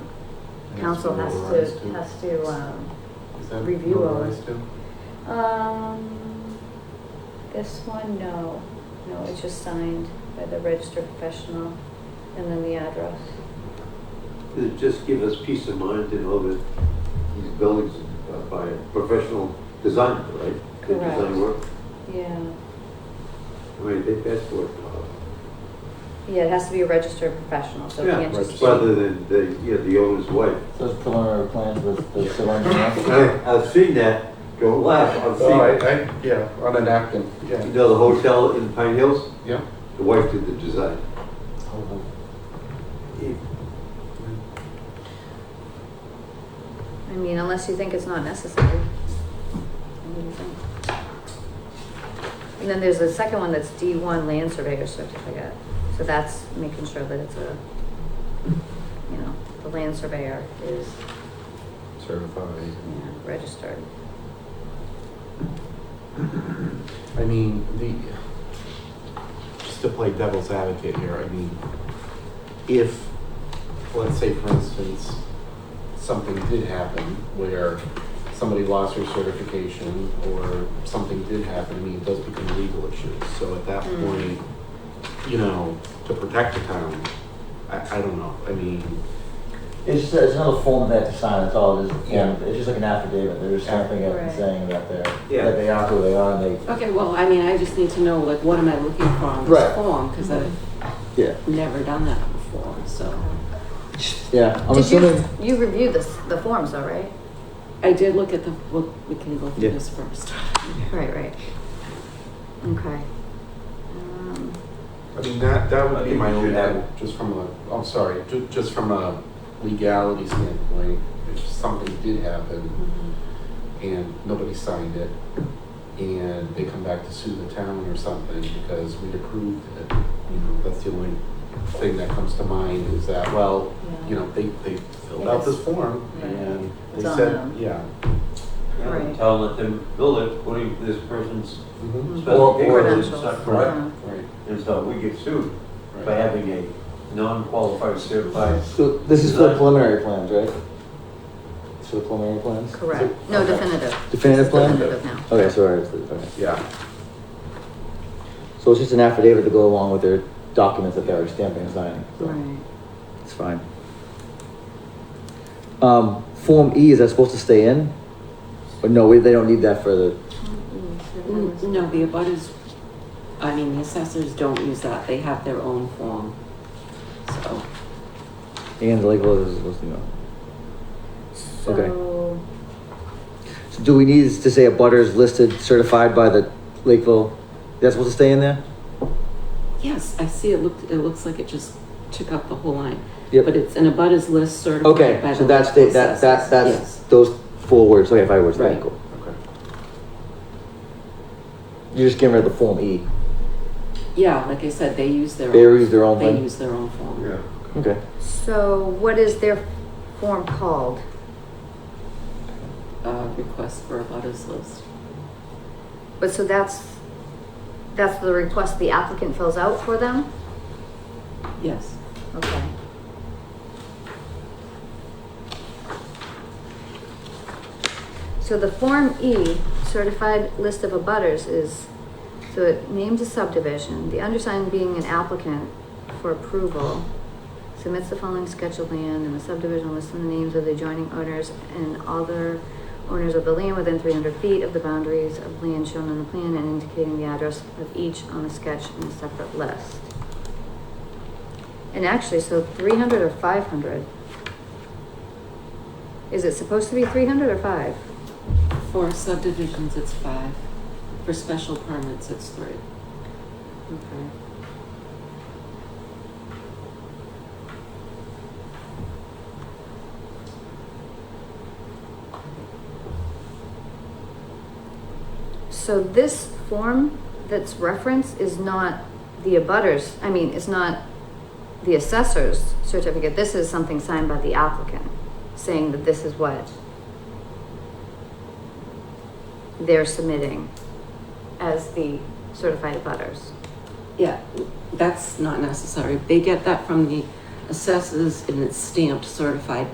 council has That's to, what it has to, um, Is that review all notarized too? Um, this one, no, no, it's just signed by the registered professional and then the address. It just give us peace of mind to know that these buildings are by a professional designer, right? They design Correct. work. Yeah, I mean, they pass for it, uh, yeah, it has to be a registered professional, so it Yeah, can't just. registered. rather than the, yeah, the owner's wife. Those preliminary plans with the civil engineer. I- I've seen that, don't laugh, I've Oh, seen, I, I, yeah, on a napkin, yeah, you know, the hotel in Pine Hills, yeah. the wife did the design. It- I mean, unless you think it's not necessary. I wouldn't think. And then there's a second one that's D one land surveyor certificate, so that's making sure that it's a, you know, the land surveyor is, Certified. you know, registered. I mean, the, just to play devil's advocate here, I mean, if, let's say for instance, something did happen where somebody lost their certification or something did happen, I mean, it does become a legal issues. So at that Mm. point, you know, to protect the town, I, I don't know, I mean, It's just, it's another form they have to sign, it's all, it's, Yeah. it's just like an affidavit, they're just stamping it and Right. saying that they're, Yeah. that they are who they are, and Okay, well, I mean, I just need to know, like, what am I looking for on Right. this form? Because I've they. Yeah, never done that before, so. yeah, I'm Did you, assuming, you reviewed this, the forms though, right? I did look at the, well, we can go Yeah. through this first. Right, right. Okay. Um, I mean, that, that would be my I think only, we should have- just from a, I'm sorry, ju- just from a legality standpoint, if something did happen and nobody signed it, and they come back to sue the town or something because we approved it, you know, that's the only thing that comes to mind is that, well, you know, they, they filled out this form Yeah. and they It's on said, them. yeah. Right. Tell them, let them build it, according to this person's Mhm. specifications, it's not Credentials. correct. yeah. Right, And so we get sued by right. having a non-qualified certified so this is for the Design. preliminary plans, right? It's for the preliminary plans? Correct. No, Okay. definitive. Definitive plan? Definitive now. Okay, sorry, okay. Yeah, So it's just an affidavit to go along with their documents that they're stamping and signing. so Right. It's fine. Um, Form E, is that supposed to stay in? Or no, we- they don't need that for the, Mm, No, the abutters, I mean, the assessors don't use that, they have their own form. So, and the legal is supposed to know. Okay. So, So do we need to say a butter is listed certified by the Lakeville? That's supposed to stay in there? yes, I see it looked, it looks like it just took up the whole line. Yep. But it's an abutters list certified by the. Okay, so that's the, that, that, that's Yes. those four words, okay, five words, Right. thank you. okay. You're just getting rid of the Form E. Yeah, like I said, they use their. They use their own They thing? use their own form. Yeah. Okay. so what is their form called? Uh, request for abutters list. But so that's, that's the request the applicant fills out for them? Yes. Okay. So the Form E, certified list of abutters is, so it names a subdivision, the undersigned being an applicant for approval. Submits the following sketch of land and the subdivision lists the names of the adjoining owners and other owners of the land within three hundred feet of the boundaries of land shown on the plan and indicating the address of each on the sketch in a separate list. And actually, so three hundred or five hundred? Is it supposed to be three hundred or five? For subdivisions, it's five. For special permits, it's three. Okay. So this form that's referenced is not the abutters, I mean, it's not the assessor's certificate. This is something signed by the applicant, saying that this is what they're submitting as the certified abutters. Yeah, that's not necessary. They get that from the assessors and it's stamped certified